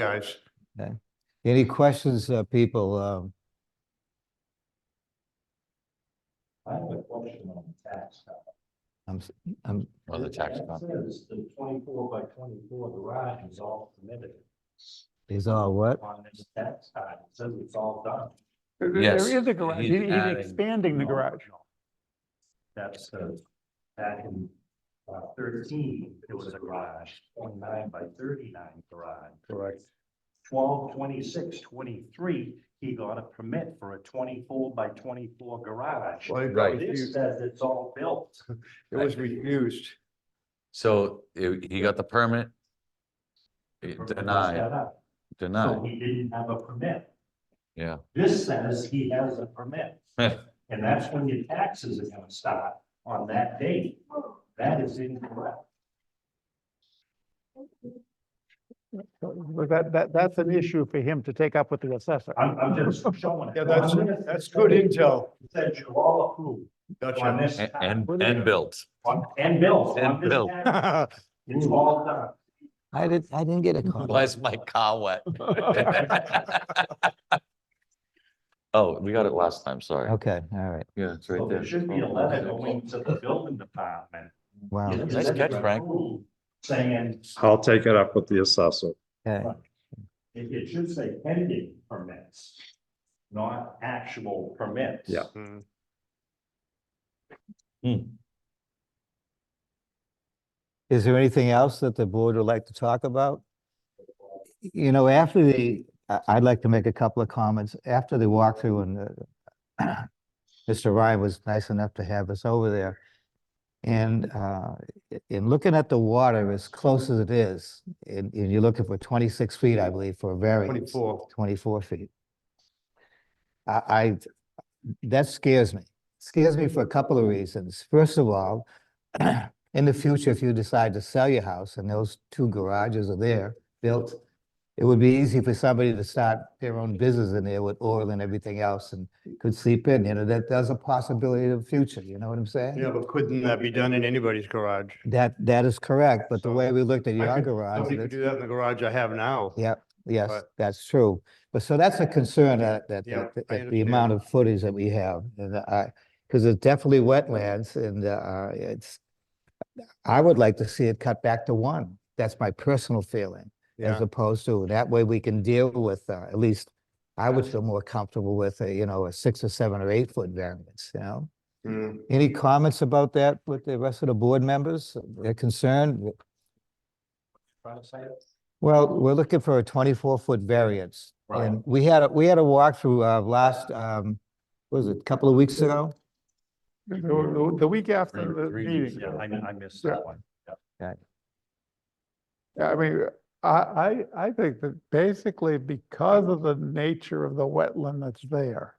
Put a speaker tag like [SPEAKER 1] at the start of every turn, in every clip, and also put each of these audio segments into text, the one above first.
[SPEAKER 1] guys.
[SPEAKER 2] Any questions, uh, people? Um,
[SPEAKER 3] I have a question on the tax.
[SPEAKER 2] I'm, s- I'm,
[SPEAKER 4] On the tax
[SPEAKER 3] It
[SPEAKER 4] map.
[SPEAKER 3] Says the twenty-four by twenty-four garage is all permitted
[SPEAKER 2] is all what?
[SPEAKER 3] on this tax card. It says it's all done.
[SPEAKER 1] There- there-
[SPEAKER 4] Yes,
[SPEAKER 1] There is a garage.
[SPEAKER 4] he's
[SPEAKER 1] He- He's
[SPEAKER 4] adding-
[SPEAKER 1] expanding the garage.
[SPEAKER 3] That's uh, back in uh, thirteen, it was a garage, twenty-nine by thirty-nine garage. Correct. Twelve, twenty-six, twenty-three, he got a permit for a twenty-four by twenty-four garage.
[SPEAKER 1] Well, it
[SPEAKER 4] Right.
[SPEAKER 1] was
[SPEAKER 3] This
[SPEAKER 1] used-
[SPEAKER 3] says it's all built.
[SPEAKER 1] It was refused.
[SPEAKER 4] So i- he got the permit. eh, Denied,
[SPEAKER 3] Set up. So
[SPEAKER 4] denied,
[SPEAKER 3] he didn't have a permit.
[SPEAKER 4] yeah.
[SPEAKER 3] This says he has a permit.
[SPEAKER 4] Heh.
[SPEAKER 3] And that's when your taxes are gonna start on that date. That is incorrect.
[SPEAKER 1] But that, that, that's an issue for him to take up with the assessor.
[SPEAKER 3] I'm, I'm just showing it.
[SPEAKER 1] Yeah, that's, that's good intel.
[SPEAKER 3] It Says you all approved on
[SPEAKER 1] Gotcha.
[SPEAKER 3] this,
[SPEAKER 4] A-
[SPEAKER 3] tax,
[SPEAKER 4] And, and built.
[SPEAKER 3] on, and bills, on
[SPEAKER 4] And
[SPEAKER 3] this
[SPEAKER 4] bill.
[SPEAKER 3] tax,
[SPEAKER 1] I
[SPEAKER 3] it's all done.
[SPEAKER 2] I didn't, I didn't get a call.
[SPEAKER 4] Why is my car wet? Oh, we got it last time, sorry.
[SPEAKER 2] Okay, all right.
[SPEAKER 4] Yeah, it's Oh,
[SPEAKER 3] So there should be a letter going to the building department.
[SPEAKER 2] Wow.
[SPEAKER 3] It
[SPEAKER 4] Nice
[SPEAKER 3] says
[SPEAKER 4] catch,
[SPEAKER 3] you're
[SPEAKER 4] Frank.
[SPEAKER 3] approved, Saying,
[SPEAKER 5] I'll take it up with the assessor.
[SPEAKER 2] Okay.
[SPEAKER 3] it, it should say pending permits, not actual permits.
[SPEAKER 5] Yeah.
[SPEAKER 1] Hmm,
[SPEAKER 2] Is there anything else that the board would like to talk about? You know, after the, I- I'd like to make a couple of comments. After the walkthrough and uh, Mr. Ryan was nice enough to have us over there. And uh, i- in looking at the water, as close as it is, and and you're looking for 26 feet, I believe, for a variance.
[SPEAKER 1] 24.
[SPEAKER 2] 24 feet. I, I, that scares me. Scares me for a couple of reasons. First of all, in the future, if you decide to sell your house and those two garages are there built, it would be easy for somebody to start their own business in there with oil and everything else and could sleep in, you know, that, there's a possibility of the future, you know what I'm saying?
[SPEAKER 1] Yeah, but couldn't that be done in anybody's garage?
[SPEAKER 2] That, that is correct, but the
[SPEAKER 1] So
[SPEAKER 2] way we looked at
[SPEAKER 1] I
[SPEAKER 2] your
[SPEAKER 1] could-
[SPEAKER 2] garage,
[SPEAKER 1] Somebody could
[SPEAKER 2] that's-
[SPEAKER 1] do that in the garage I have now.
[SPEAKER 2] Yep, yes,
[SPEAKER 1] But-
[SPEAKER 2] that's true. But so that's a concern that, that,
[SPEAKER 1] Yeah,
[SPEAKER 2] that-
[SPEAKER 1] I
[SPEAKER 2] that the amount of footage that we have. And I, because it's definitely wetlands and, uh, it's, I would like to see it cut back to one. That's my personal feeling. As
[SPEAKER 1] Yeah,
[SPEAKER 2] opposed to, that way we can deal with, uh, at least I would feel more comfortable with, a you know, a six or seven or eight foot variance, you know?
[SPEAKER 1] Mm.
[SPEAKER 2] Any comments about that with the rest of the board members? They're concerned?
[SPEAKER 3] Trying to say it.
[SPEAKER 2] Well, we're looking for a twenty-four foot variance.
[SPEAKER 3] Right.
[SPEAKER 2] And we had, a we had a walkthrough of last, um, what was it, a couple of weeks ago?
[SPEAKER 1] The, the- the week after the
[SPEAKER 4] Three weeks
[SPEAKER 1] meeting.
[SPEAKER 3] Yeah, I, I missed
[SPEAKER 1] Yeah.
[SPEAKER 3] that one.
[SPEAKER 1] Yeah, I mean, I, I, I think that basically because of the nature of the wetland that's there,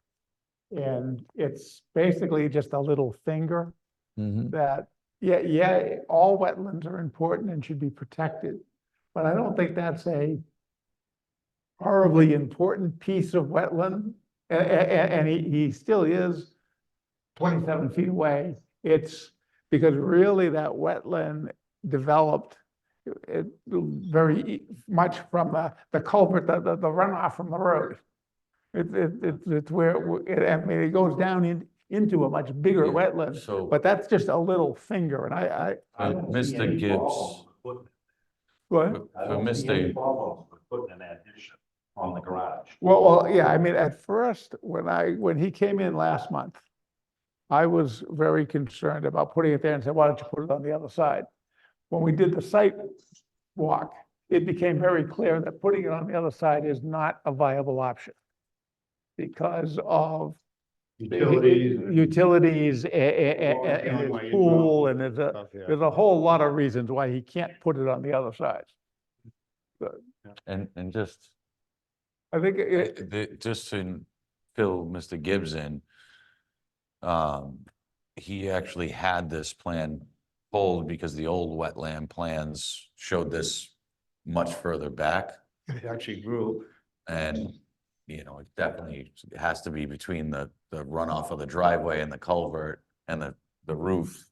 [SPEAKER 1] and it's basically just a little finger that, yeah, yeah, all wetlands are important and should be protected. But I don't think that's a horribly important piece of wetland. A- a- a- and he, he still is twenty-seven feet away. It's because really that wetland developed it, very e- much from the, the culvert, the, the the runoff from the road. It, it, it's- it's where, it w- it- I mean, it goes down in, into a much bigger
[SPEAKER 4] Yeah,
[SPEAKER 1] wetland.
[SPEAKER 4] So,
[SPEAKER 1] But that's just a little finger, and I, I,
[SPEAKER 3] I
[SPEAKER 4] Uh,
[SPEAKER 3] don't see
[SPEAKER 4] Mr.
[SPEAKER 3] any
[SPEAKER 4] Gibbs.
[SPEAKER 3] problem with putting-
[SPEAKER 1] well,
[SPEAKER 4] for
[SPEAKER 3] I
[SPEAKER 4] for
[SPEAKER 3] don't see any
[SPEAKER 4] Mr.
[SPEAKER 3] problem with Putting an addition on the garage.
[SPEAKER 1] well, well, yeah, I mean, at first, when I, when he came in last month, I was very concerned about putting it there and said, why don't you put it on the other side? When we did the site walk, it became very clear that putting it on the other side is not a viable option because of utilities, a- a- a-
[SPEAKER 3] Well,
[SPEAKER 1] a-
[SPEAKER 3] yeah,
[SPEAKER 1] and
[SPEAKER 3] why
[SPEAKER 1] his
[SPEAKER 3] you
[SPEAKER 1] pool,
[SPEAKER 3] draw.
[SPEAKER 1] and there's a, there's a whole lot of reasons why he can't put it on the other side.
[SPEAKER 4] and, and just,
[SPEAKER 1] I think it,
[SPEAKER 4] the- just to fill Mr. Gibbs in. Um, he actually had this plan pulled because the old wetland plans showed this much further back.
[SPEAKER 1] It actually grew.
[SPEAKER 4] And, you know, it definitely has to be between the, the runoff of the driveway and the culvert and the, the roof.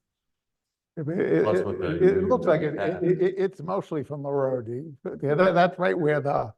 [SPEAKER 1] I mean, It,
[SPEAKER 4] Plus
[SPEAKER 1] it-
[SPEAKER 4] with
[SPEAKER 1] it-
[SPEAKER 4] the-
[SPEAKER 1] it looks like it,
[SPEAKER 4] Yeah.
[SPEAKER 1] it, it- it's mostly from the road. You- yeah, that- that's right where the,